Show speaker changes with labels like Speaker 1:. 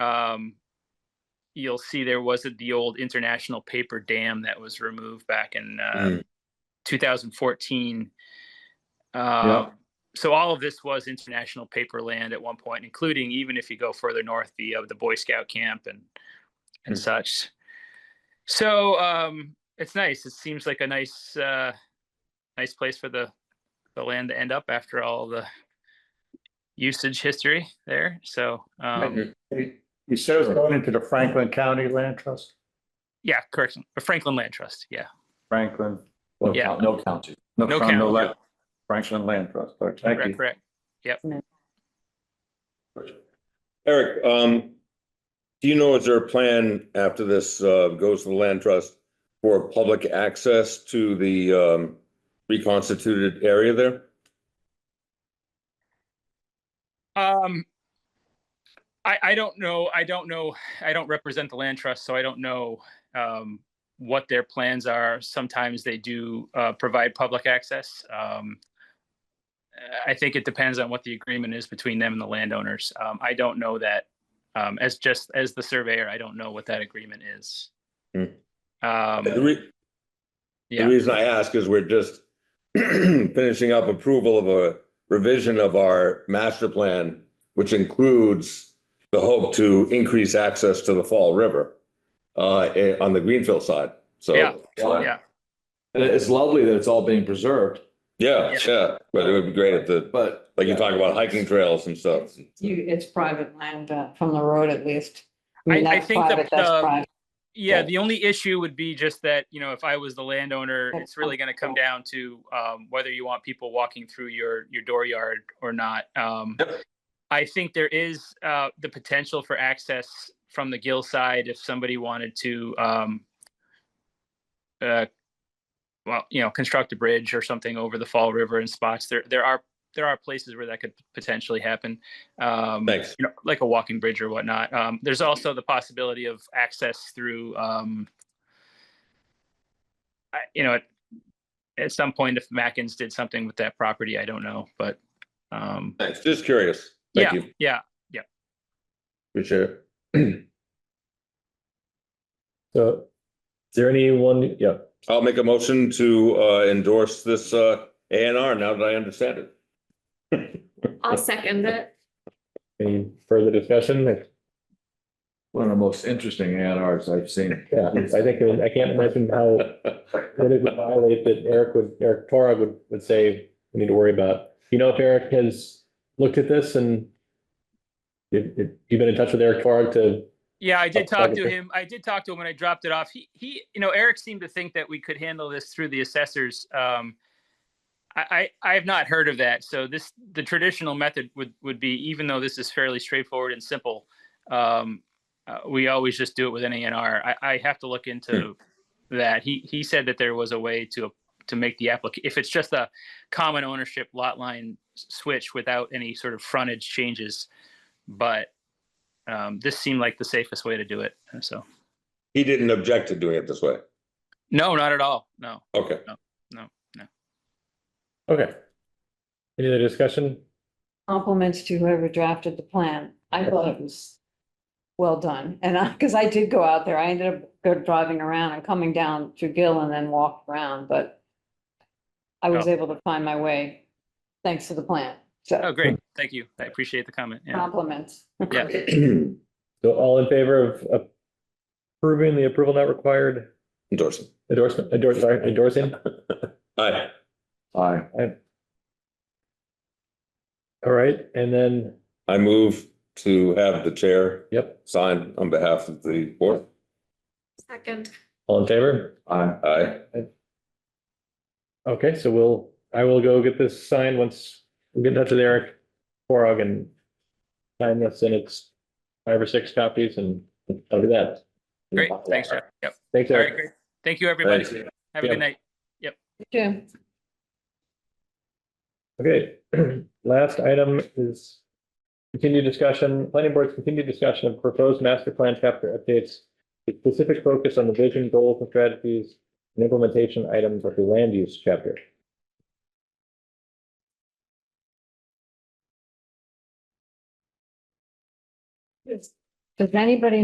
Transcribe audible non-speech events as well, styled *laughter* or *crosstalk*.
Speaker 1: um, you'll see there was a- the old international paper dam that was removed back in uh,
Speaker 2: Mm.
Speaker 1: 2014. Uh, So all of this was international paper land at one point, including even if you go further north, the uh, the Boy Scout camp and and
Speaker 3: Mm.
Speaker 1: such. So um, it's nice. It seems like a nice uh, nice place for the the land to end up after all the usage history there. So um,
Speaker 3: Mhm.
Speaker 4: It- You said it was going into the Franklin County Land Trust?
Speaker 1: yeah, correct. Franklin Land Trust. Yeah.
Speaker 4: Franklin.
Speaker 3: No
Speaker 1: Yeah.
Speaker 3: count- No county.
Speaker 1: No
Speaker 4: front,
Speaker 1: county.
Speaker 4: left. Franklin Land Trust, all right, thank
Speaker 1: Correct.
Speaker 4: you.
Speaker 1: Correct.
Speaker 2: Eric, um, do you know, is there a plan after this, uh, goes to the land trust for public access to the, um, reconstituted area there?
Speaker 1: Um, I, I don't know, I don't know, I don't represent the land trust, so I don't know, um, what their plans are. Sometimes they do, uh, provide public access. Um, I think it depends on what the agreement is between them and the landowners. Um, I don't know that, um, as just, as the surveyor, I don't know what that agreement is.
Speaker 2: Hmm. The
Speaker 1: Um,
Speaker 2: re-
Speaker 1: yeah.
Speaker 2: the reason I ask is we're just *clears throat* finishing up approval of a revision of our master plan, which includes the hope to increase access to the Fall River, uh, eh, on the Greenfield side. So,
Speaker 1: Yeah.
Speaker 3: Yeah.
Speaker 1: Yeah.
Speaker 3: And it's lovely that it's all being preserved,
Speaker 2: yeah, yeah, but it would be great if the,
Speaker 3: but.
Speaker 2: like you talk about hiking trails and stuff.
Speaker 5: It's- You, it's private land, uh, from the road at least. I mean,
Speaker 1: I- I
Speaker 5: that's
Speaker 1: think the-
Speaker 5: private, that's
Speaker 1: the-
Speaker 5: private.
Speaker 1: Yeah,
Speaker 2: Yeah.
Speaker 1: the only issue would be just that, you know, if I was the landowner,
Speaker 5: That's
Speaker 1: it's really gonna come
Speaker 5: helpful.
Speaker 1: down to um whether you want people walking through your your dooryard or not. Um
Speaker 3: Yep.
Speaker 1: I think there is uh the potential for access from the Gill side if somebody wanted to um uh well, you know, construct a bridge or something over the Fall River in spots. There there are there are places where that could potentially happen. Um
Speaker 2: Thanks.
Speaker 1: you know, like a walking bridge or whatnot. Um, there's also the possibility of access through, um, I- you know, at, at some point, if Mackins did something with that property, I don't know, but, um,
Speaker 2: Thanks. Just curious. Thank you.
Speaker 1: yeah,
Speaker 2: Appreciate it.
Speaker 6: So, is there anyone, yeah,
Speaker 2: I'll make a motion to uh, endorse this uh, A and R now that I understand it.
Speaker 7: I'll second it.
Speaker 6: any further discussion? If-
Speaker 3: One of the most interesting A and Rs I've seen.
Speaker 6: Yeah, I think, I can't imagine *laughs* how, that it would violate that Eric would, Eric Torag would, would say, we need to worry about. You know, if Eric has looked at this and if, if you've been in touch with Eric Torag to,
Speaker 1: Yeah, I did
Speaker 6: Oh,
Speaker 1: talk to
Speaker 6: okay.
Speaker 1: him. I did talk to him when I dropped it off. He, he, you know, Eric seemed to think that we could handle this through the assessors. Um, I, I, I have not heard of that. So this, the traditional method would, would be, even though this is fairly straightforward and simple, um, uh, we always just do it with an ANR. I, I have to look into that. He, he said that there was a way to, to make the application, if it's just a common ownership lot line s- switch without any sort of frontage changes. But um, this seemed like the safest way to do it. So,
Speaker 2: He didn't object to doing it this way.
Speaker 1: no, not at all. No.
Speaker 2: Okay. *clears throat*
Speaker 6: okay. Any other discussion?
Speaker 5: Compliments to whoever drafted the plan. I thought it was well done. And I, because I did go out there, I ended up go driving around and coming down through Gill and then walked around, but I was able to find my way thanks to the plan.
Speaker 1: Oh,
Speaker 5: So
Speaker 1: great. Thank you. I appreciate the comment.
Speaker 5: Um,
Speaker 1: Yeah.
Speaker 5: compliments.
Speaker 6: So all in favor of approving the approval not required
Speaker 2: Endorsing.
Speaker 6: endorsement, endorse, sorry, endorsing?
Speaker 2: Aye.
Speaker 3: Aye.
Speaker 6: All right, and then,
Speaker 2: I move to have the chair
Speaker 6: yep,
Speaker 2: sign on behalf of the board.
Speaker 7: Second.
Speaker 6: all in favor?
Speaker 3: Aye.
Speaker 2: Aye.
Speaker 6: Okay, so we'll, I will go get this signed once we get in touch with Eric Forog and sign this in its five or six copies and I'll do that.
Speaker 1: Great. Thanks, Jeff. Yep.
Speaker 6: Thanks,
Speaker 1: All right.
Speaker 6: Eric.
Speaker 1: Great. Thank you, everybody.
Speaker 2: Thanks.
Speaker 1: Have a
Speaker 6: Yeah.
Speaker 1: good night.
Speaker 5: Jim,
Speaker 6: Okay, *clears throat* last item is continued discussion, planning board's continued discussion of proposed master plan chapter updates. with Specific focus on the vision, goals and strategies and implementation items of the land use chapter.
Speaker 5: Does anybody